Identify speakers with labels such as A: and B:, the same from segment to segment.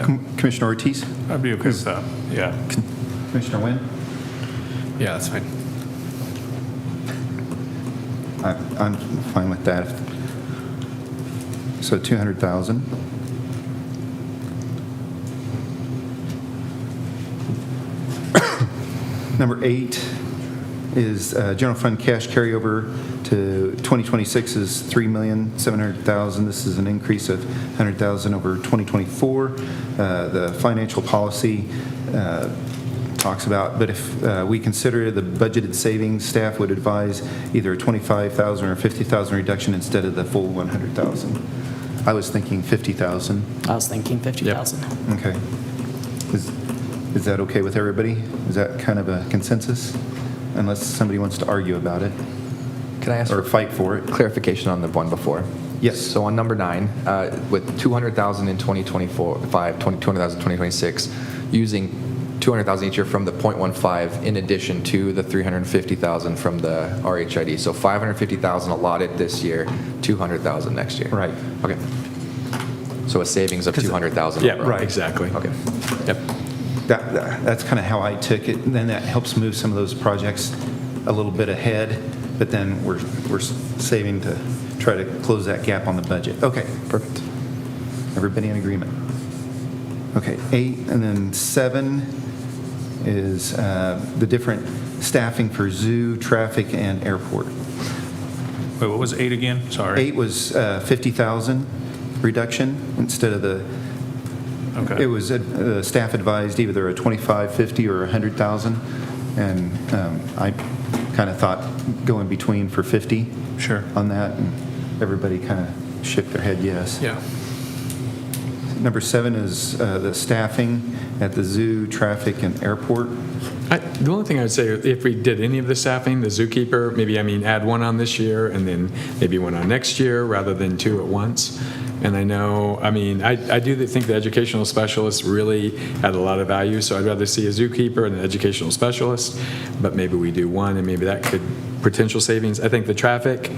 A: Com- Commissioner Ortiz?
B: I'd be okay with that, yeah.
A: Commissioner Wynn?
B: Yeah, that's fine.
A: I- I'm fine with that. So 200,000. Number eight is uh, general fund cash carryover to 2026 is 3,700,000. This is an increase of 100,000 over 2024. Uh, The financial policy uh, talks about, but if uh, we consider the budgeted savings, staff would advise either a 25,000 or 50,000 reduction instead of the full 100,000. I was thinking 50,000.
C: I was thinking 50,000.
A: Okay. Is, is that okay with everybody? Is that kind of a consensus? Unless somebody wants to argue about it
D: Can I ask
A: or
D: for
A: fight for it.
D: clarification on the one before?
A: Yes.
D: So on number nine, uh, with 200,000 in 2024, 5, 20 200,000 in 2026, using 200,000 each year from the .15 in addition to the 350,000 from the RHID. So 550,000 allotted this year, 200,000 next year.
A: Right.
D: Okay. So a savings of 200,000.
B: Yeah,
D: overall.
B: right, exactly.
D: Okay.
B: Yep.
A: That, that- that's kind of how I took it, and then that helps move some of those projects a little bit ahead, but then we're, we're saving to try to close that gap on the budget. Okay, perfect. Everybody in agreement? Okay, eight, and then seven is uh, the different staffing for zoo, traffic, and airport.
B: Wait, what was eight again? Sorry.
A: Eight was uh, 50,000 reduction instead of the
B: Okay.
A: it was, uh, staff advised either a 25, 50, or 100,000, and um, I kind of thought go in between for 50.
B: Sure.
A: On that, and everybody kind of shook their head yes.
B: Yeah.
A: Number seven is uh, the staffing at the zoo, traffic, and airport.
E: I- The only thing I would say, if we did any of the staffing, the zookeeper, maybe, I mean, add one on this year and then maybe one on next year rather than two at once. And I know, I mean, I, I do think the educational specialist really had a lot of value, so I'd rather see a zookeeper and an educational specialist, but maybe we do one and maybe that could, potential savings. I think the traffic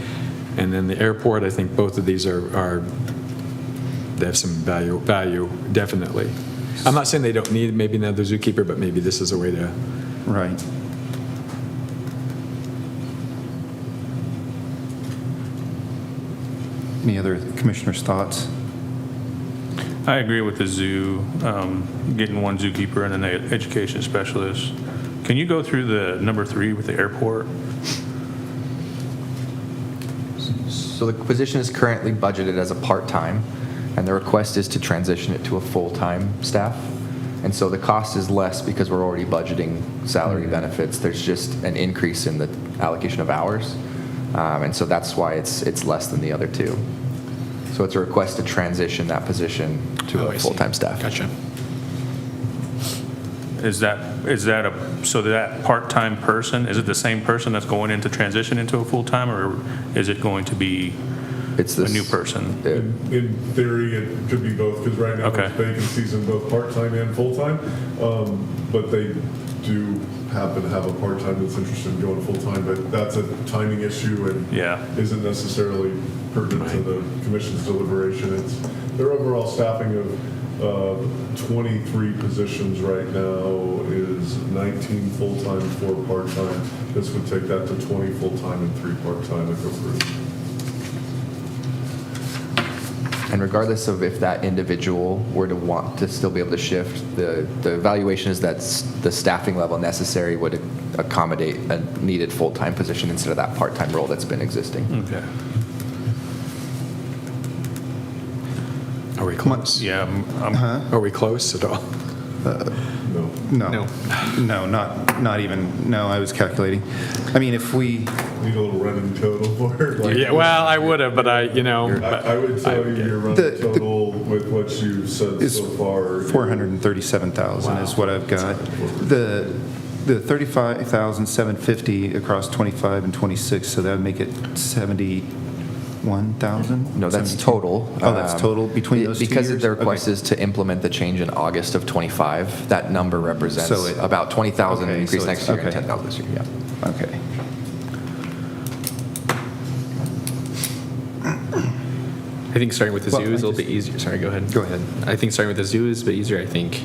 E: and then the airport, I think both of these are, are they have some value, value, definitely. I'm not saying they don't need maybe another zookeeper, but maybe this is a way to
A: Right. Any other commissioners' thoughts?
B: I agree with the zoo, um, getting one zookeeper and an e- education specialist. Can you go through the number three with the airport?
D: So the position is currently budgeted as a part-time, and the request is to transition it to a full-time staff. And so the cost is less because we're already budgeting salary
B: Mm-hmm.
D: benefits. There's just an increase in the allocation of hours. Um, And so that's why it's, it's less than the other two. So it's a request to transition that position
B: Oh,
D: to a full-time staff.
E: Gotcha.
B: Is that, is that a, so that part-time person, is it the same person that's going into transition into a full-time, or is it going to be
D: It's
B: a
D: this-
B: new person? Mm-hmm.
D: Yeah.
F: In theory, it could be both, because right now
B: Okay.
F: there's vacancies in both part-time and full-time. Um, But they do happen to have a part-time that's interested in going full-time, but that's a timing issue and
B: Yeah.
F: isn't necessarily pertinent to the commission's deliberation. It's their overall staffing of uh, 23 positions right now is 19 full-time, four part-time. This would take that to 20 full-time and three part-time if approved.
D: And regardless of if that individual were to want to still be able to shift, the, the evaluation is that s- the staffing level necessary would accommodate a needed full-time position instead of that part-time role that's been existing.
A: Hmm.
B: Okay.
E: Are we close?
B: Yeah, I'm- I'm
E: Are we close at all?
F: No.
A: No. No, not, not even, no, I was calculating. I mean, if we,
F: Need a little running total for it. like-
E: Yeah, well, I would have, but I, you know, but-
F: I I would tell you your
A: The-
F: running
A: the-
F: total with what you've said
A: It's
F: so far.
A: 437,000 is what I've got. The, the 35,750 across 25 and 26, so that would make it 71,000?
D: No, that's total.
A: Oh, that's
D: Um,
A: total between
D: it-
A: those two
D: Because
A: years?
D: the request
A: Okay.
D: is to implement the change in August of '25, that number represents
A: So it-
D: about 20,000
A: okay, so
D: increase
A: it's-
D: next year and
A: okay.
D: 10,000 this year, yeah.
A: Okay.
E: I think starting with the
A: Well,
E: zoo is a
A: I
E: little bit easier. Sorry, go ahead.
A: Go ahead.
E: I think starting with the zoo is a bit easier. I think